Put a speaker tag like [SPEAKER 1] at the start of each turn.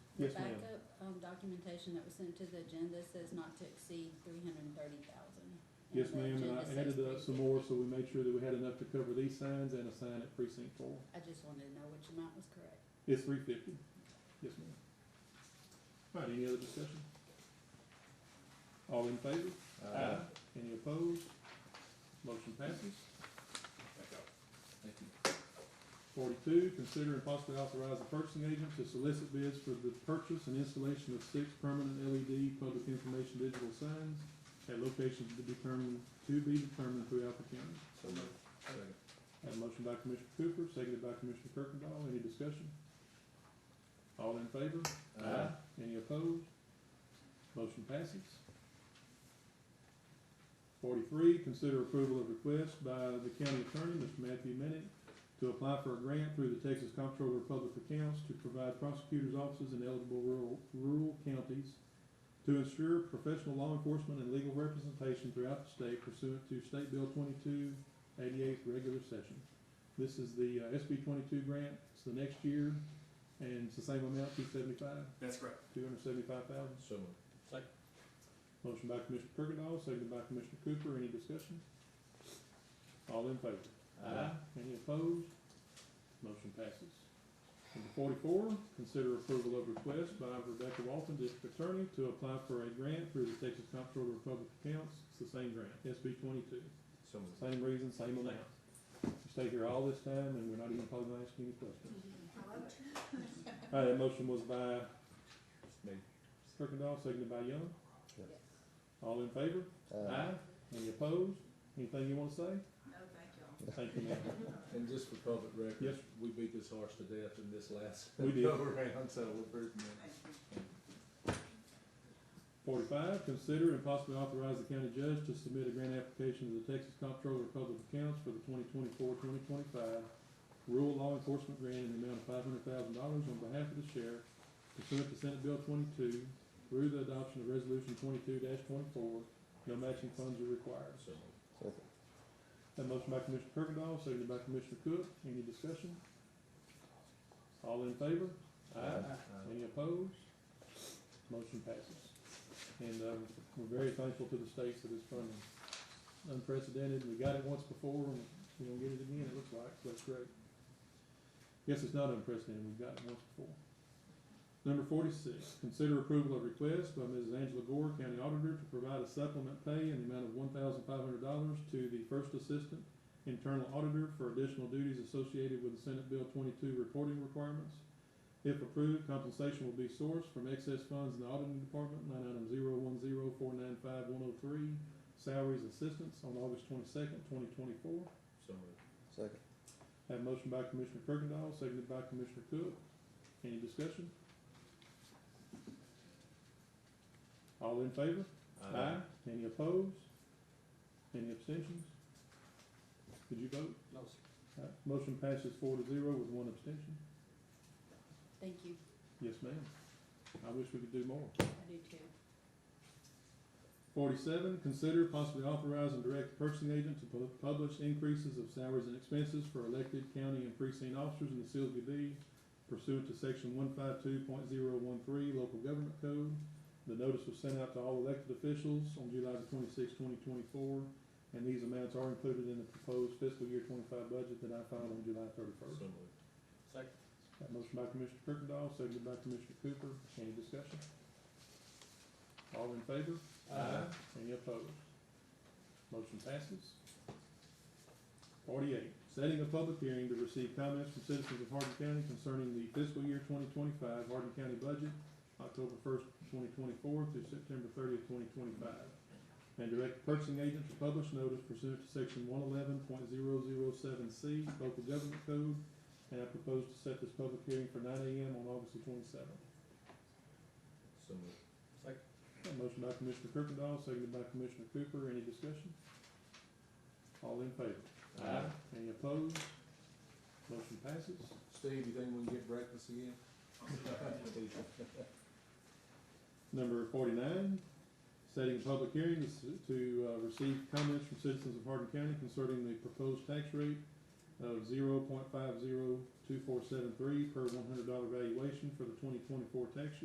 [SPEAKER 1] The
[SPEAKER 2] Yes, ma'am.
[SPEAKER 1] backup, um, documentation that was sent to the agenda says not to exceed three hundred and thirty thousand.
[SPEAKER 2] Yes, ma'am, and I added up some more, so we made sure that we had enough to cover these signs and a sign at precinct four.
[SPEAKER 1] I just wanted to know which amount was correct.
[SPEAKER 2] It's three fifty. Yes, ma'am. All right, any other discussion? All in favor?
[SPEAKER 3] Uh,
[SPEAKER 2] Uh. Any opposed? Motion passes.
[SPEAKER 3] Thank you.
[SPEAKER 2] Forty-two, consider and possibly authorize the purchasing agent to solicit bids for the purchase and installation of six permanent LED public information digital signs at locations to be determined, to be determined throughout the county.
[SPEAKER 3] So moved. Second.
[SPEAKER 2] Have a motion by Commissioner Cooper, seconded by Commissioner Kirkendall. Any discussion? All in favor?
[SPEAKER 3] Uh.
[SPEAKER 2] Uh, Any opposed? Motion passes. Forty-three, consider approval of request by the county attorney, Mr. Matthew Minnick, to apply for a grant through the Texas Comptroller of Public Accounts to provide prosecutors' offices in eligible rural, rural counties to ensure professional law enforcement and legal representation throughout the state pursuant to State Bill twenty-two eighty-eight regular session. This is the uh, SB twenty-two grant. It's the next year, and it's the same amount, two seventy-five.
[SPEAKER 4] That's correct.
[SPEAKER 2] Two hundred seventy-five thousand.
[SPEAKER 3] So moved.
[SPEAKER 2] Motion by Commissioner Kirkendall, seconded by Commissioner Cooper. Any discussion? All in favor?
[SPEAKER 3] Uh.
[SPEAKER 2] Any opposed? Motion passes. Number forty-four, consider approval of request by Rebecca Walton, District Attorney, to apply for a grant through the Texas Comptroller of Public Accounts. It's the same grant, SB twenty-two.
[SPEAKER 3] So moved.
[SPEAKER 2] Same reason, same amount. We stay here all this time and we're not even probably gonna ask any questions.
[SPEAKER 5] Mm-hmm.
[SPEAKER 2] All right, that motion was by
[SPEAKER 3] Me.
[SPEAKER 2] Kirkendall, seconded by Young.
[SPEAKER 3] Yes.
[SPEAKER 2] All in favor? Aye. Any opposed? Anything you wanna say?
[SPEAKER 5] No, thank y'all.
[SPEAKER 2] Thank you, ma'am.
[SPEAKER 3] And just for public record.
[SPEAKER 2] Yes.
[SPEAKER 3] We beat this horse to death in this last.
[SPEAKER 2] We did.
[SPEAKER 3] go Around, so we're pretty.
[SPEAKER 5] Thank you.
[SPEAKER 2] Forty-five, consider and possibly authorize the county judge to submit a grant application to the Texas Comptroller of Public Accounts for the 2024-2025 rural law enforcement grant in the amount of five hundred thousand dollars on behalf of the sheriff pursuant to Senate Bill twenty-two through the adoption of Resolution twenty-two twenty-four. No matching funds are required.
[SPEAKER 3] So moved.
[SPEAKER 2] That motion by Commissioner Kirkendall, seconded by Commissioner Cook. Any discussion? All in favor?
[SPEAKER 3] Uh.
[SPEAKER 2] Any opposed? Motion passes. And, um, we're very thankful to the states for this funding. Unprecedented, we got it once before, and we're gonna get it again, it looks like, so that's great. Guess it's not unprecedented, we've got it once before. Number forty-six, consider approval of request by Mrs. Angela Gore, County Auditor, to provide a supplement pay in the amount of one thousand five hundred dollars to the First Assistant Internal Auditor for additional duties associated with the Senate Bill twenty-two reporting requirements. If approved, compensation will be sourced from excess funds in the auditing department, line item zero one zero four nine five one oh three, salaries assistance on August twenty-second, twenty twenty-four.
[SPEAKER 3] So moved.
[SPEAKER 6] Second.
[SPEAKER 2] Have a motion by Commissioner Kirkendall, seconded by Commissioner Cook. Any discussion? All in favor?
[SPEAKER 3] Uh.
[SPEAKER 2] Any opposed? Any abstentions? Did you vote?
[SPEAKER 4] No, sir.
[SPEAKER 2] Uh, Motion passes four to zero with one abstention.
[SPEAKER 1] Thank you,
[SPEAKER 2] Yes, ma'am. I wish we could do more.
[SPEAKER 1] I do too.
[SPEAKER 2] Forty-seven, consider possibly authorize and direct the purchasing agent to pu- publish increases of salaries and expenses for elected county and precinct officers in the Silsbee Bee pursuant to section one five two point zero one three local government code. The notice was sent out to all elected officials on July the twenty-sixth, twenty twenty-four, and these amounts are included in the proposed fiscal year twenty-five budget that I filed on July
[SPEAKER 3] So
[SPEAKER 2] thirty-first.
[SPEAKER 3] moved.
[SPEAKER 4] Second.
[SPEAKER 2] Got a motion by Commissioner Kirkendall, seconded by Commissioner Cooper. Any discussion? All in favor?
[SPEAKER 3] Uh.
[SPEAKER 2] Any opposed? Motion passes. Forty-eight, setting a public hearing to receive comments from citizens of Hardin County concerning the fiscal year twenty twenty-five Hardin County budget, October first, twenty twenty-four through September thirtieth, twenty twenty-five. And direct the purchasing agent to publish notice pursuant to section one eleven point zero zero seven C, local government code. And I propose to set this public hearing for nine AM on August the twenty-seventh.
[SPEAKER 3] So moved.
[SPEAKER 2] Got a motion by Commissioner Kirkendall, seconded by Commissioner Cooper, any discussion? All in favor?
[SPEAKER 3] Uh.
[SPEAKER 2] Any opposed? Motion passes.
[SPEAKER 3] Steve, you think we can get breakfast again?
[SPEAKER 2] Number forty-nine, setting a public hearing to s- to, uh, receive comments from citizens of Hardin County concerning the proposed tax rate of zero point five zero two four seven three per one hundred dollar valuation for the twenty twenty-four tax year.